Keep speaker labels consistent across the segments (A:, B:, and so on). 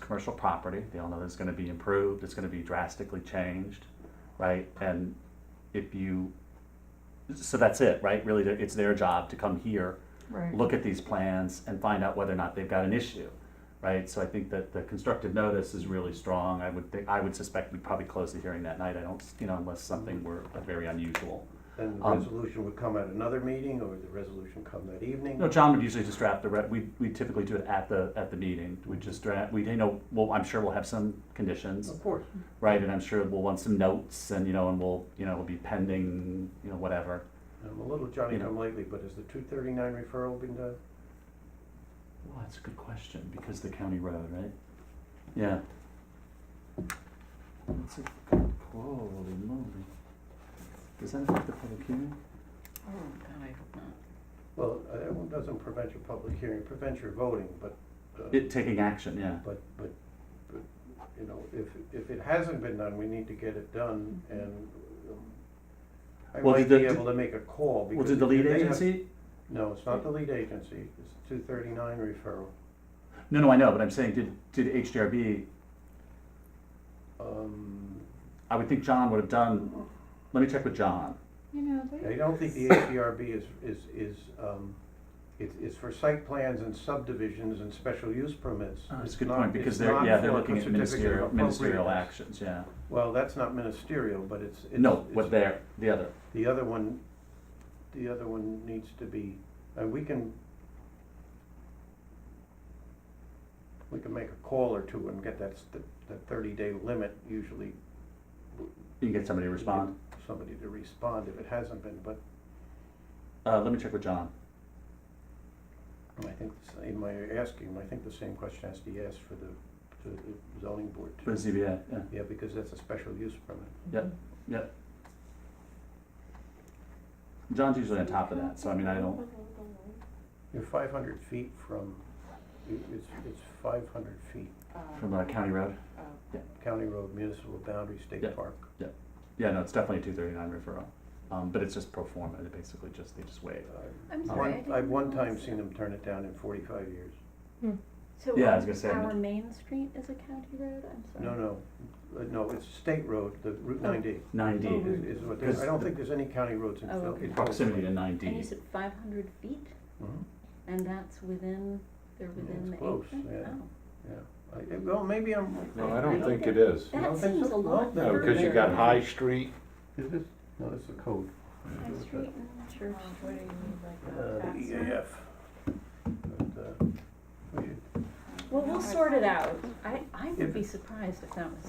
A: commercial property. They all know it's gonna be improved, it's gonna be drastically changed, right? And if you, so that's it, right? Really, they're- it's their job to come here,
B: Right.
A: look at these plans and find out whether or not they've got an issue, right? So I think that the constructive notice is really strong. I would think, I would suspect we'd probably close the hearing that night. I don't, you know, unless something were very unusual.
C: And the
A: Um,
C: resolution would come at another meeting, or would the resolution come that evening?
A: No, John would usually just draft the, re- we, we typically do it at the, at the meeting. We just draft, we, you know, well, I'm sure we'll have some conditions,
C: Of course.
A: right? And I'm sure we'll want some notes and, you know, and we'll, you know, it'll be pending, you know, whatever.
C: I'm a little Johnny come lately, but has the two thirty-nine referral been done?
A: Well, that's a good question, because the county road, right? Yeah. That's a good, holy moly. Does that affect the public hearing?
B: Oh, God, I hope not.
C: Well, uh, that one doesn't prevent your public hearing, it prevents your voting, but, uh,
A: It, taking action, yeah.
C: but, but, but, you know, if, if it hasn't been done, we need to get it done, and um, I
A: Mm-hmm. Well,
C: might be
A: did the-
C: able to make a call, because.
A: Well, did the
C: if
A: lead
C: they have-
A: agency?
C: No, it's not the lead agency, it's two thirty-nine referral.
A: No, no, I know, but I'm saying, did, did HDRB,
C: Um,
A: I would think John would have done, let me check with John.
B: You know, they.
C: I don't think the HDRB is, is, is, um, it's, it's for site plans and subdivisions and special use permits.
A: Ah, That's a
C: It's
A: good
C: not-
A: point, because
C: it's
A: they're,
C: not
A: yeah, they're
C: for
A: looking at
C: certificate of
A: ministerial, ministerial
C: appropriateness.
A: actions, yeah.
C: Well, that's not ministerial, but it's, it's.
A: No,
C: it's-
A: what they're, the other,
C: The other one, the other one needs to be, uh, we can, we can make a call or two and get that, st- that thirty-day limit usually.
A: you can get somebody to respond.
C: Somebody to respond if it hasn't been, but
A: Uh, let me check with John.
C: I think, the same my asking, I think the same question has to be asked for the, to the zoning board
A: For the
C: too.
A: ZBA, yeah.
C: Yeah, because that's a special use permit.
D: Mm-hmm.
A: Yep, yep. John's usually on top of that, so I mean, I don't,
C: You're five hundred feet from, it- it's, it's five hundred feet,
A: from uh, County Road.
D: Oh.
C: county road, municipal boundary,
A: Yeah.
C: state park.
A: Yeah, no, it's definitely a two thirty-nine referral, um, but it's just pro forma, they basically just, they just waive.
B: I'm
C: I've
B: sorry, I
C: Uh, one-
B: didn't.
C: I've one
B: realize
C: time
B: that.
C: seen them turn it down in forty-five years.
B: So
A: Yeah, I was gonna say,
B: Our
A: no.
B: main street is a county road, I'm sorry.
C: No, no, uh, no, it's state road, the Route nine D
A: Nine D,
B: Oh,
C: is, is what, they-
A: Because
C: I don't
A: the-
C: think there's any county roads in
B: Oh,
C: Phil-
B: okay.
C: in
A: proximity to
C: Philadelphia.
A: nine
B: And you
A: D.
B: said five hundred feet,
C: Mhm,
B: and that's within, they're within the
C: it's
B: apron?
C: close, yeah.
B: Oh.
C: yeah. I- it- Well, maybe I'm.
E: No,
B: I
E: I don't
B: don't
E: think
B: think-
E: it is.
C: You
B: That
C: don't think
B: seems
C: so?
B: a lot
C: No,
E: No,
B: further.
E: because you got High Street,
C: Is this, no, this is the code.
B: High Street and
F: Oh,
B: Church
G: What do
B: Street.
G: you mean, like
C: Uh,
G: a
C: the
G: faxer?
C: EAF. But, uh, we should-
B: Well, we'll sort it out. I, I would be surprised if that was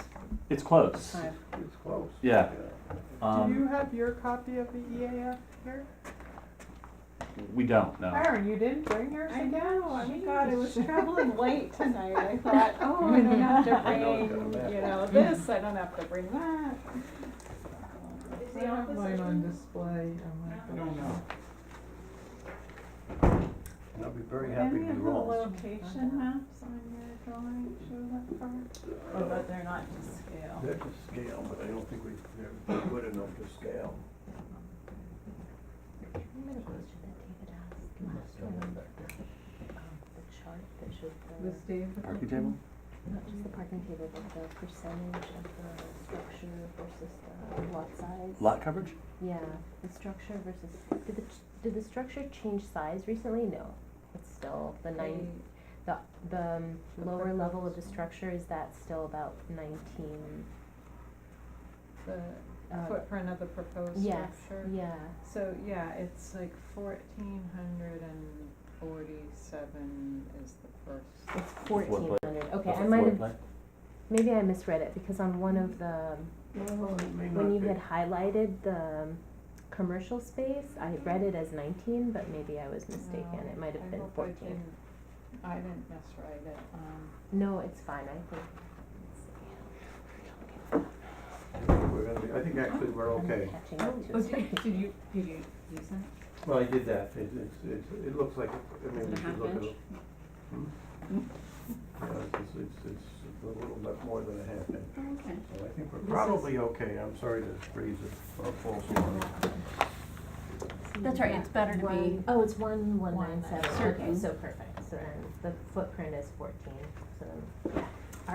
A: It's close,
B: five.
C: It's close.
A: yeah,
F: Do you
A: um,
F: have your copy of the E EAF here?
A: we don't, no.
F: Aaron, you didn't bring yours
G: I
F: again?
G: know,
B: oh
G: I mean, God, it was traveling late tonight, I thought, oh, I don't have to
C: I know, it's got a
G: bring,
C: map.
G: you know, this, I don't have to bring that.
F: I have mine on display. I'm like, Oh,
B: oh,
F: I don't know.
C: And I'll be very happy to be wrong.
G: Any of the location maps on your drawing show that part? Oh, but they're not to scale.
C: Uh, They're to scale, but I don't think we, they're good enough to scale.
D: I'm gonna go to that David asked last one, um, the chart that showed
F: This
D: the,
F: Dave?
A: Parking table?
D: not just the parking table, but the percentage of the structure versus the lot size.
A: Lot coverage?
D: Yeah, the structure versus, did the, ch- did the structure change size recently? No, it's still the nine, the, the um, lower level of the structure, is that still about nineteen?
G: The
D: uh,
G: footprint of the proposed
D: Yeah,
G: structure.
D: yeah,
G: So, yeah, it's like fourteen hundred and forty-seven is the first.
D: it's
A: floor plate.
D: fourteen hundred, okay,
A: That's
D: I
A: the
D: might
A: floor
D: have,
A: plan.
D: maybe I misread it, because on one of the,
C: Well, it may
D: When
C: not
D: you
C: be.
D: had highlighted the um, commercial space, I read it as nineteen, but maybe I was mistaken,
G: No,
D: it might
G: I
D: have been
G: hope I
D: fourteen.
G: didn't- I didn't miswrite it, um.
D: No, it's fine, I think.
C: We're gonna be, I think actually we're okay.
D: I'm catching up to it.
B: did you, did you use that?
C: Well, I did that, it, it's- it's, it looks like, I
B: Is
C: mean,
B: it
C: we
B: a half
C: should look at
B: inch?
C: it. Hmm? Yeah, it's, it's, it's- it's a little bit more than a half inch,
B: Oh, Okay.
C: so I think
B: This
C: we're
B: is-
C: probably okay, I'm sorry to raise a a false alarm.
B: That's right, it's better to be,
D: Oh, it's one, one
G: One
D: nine
G: nine
D: seven,
B: seven.
D: okay, so perfect, so then the footprint is fourteen, so then, yeah,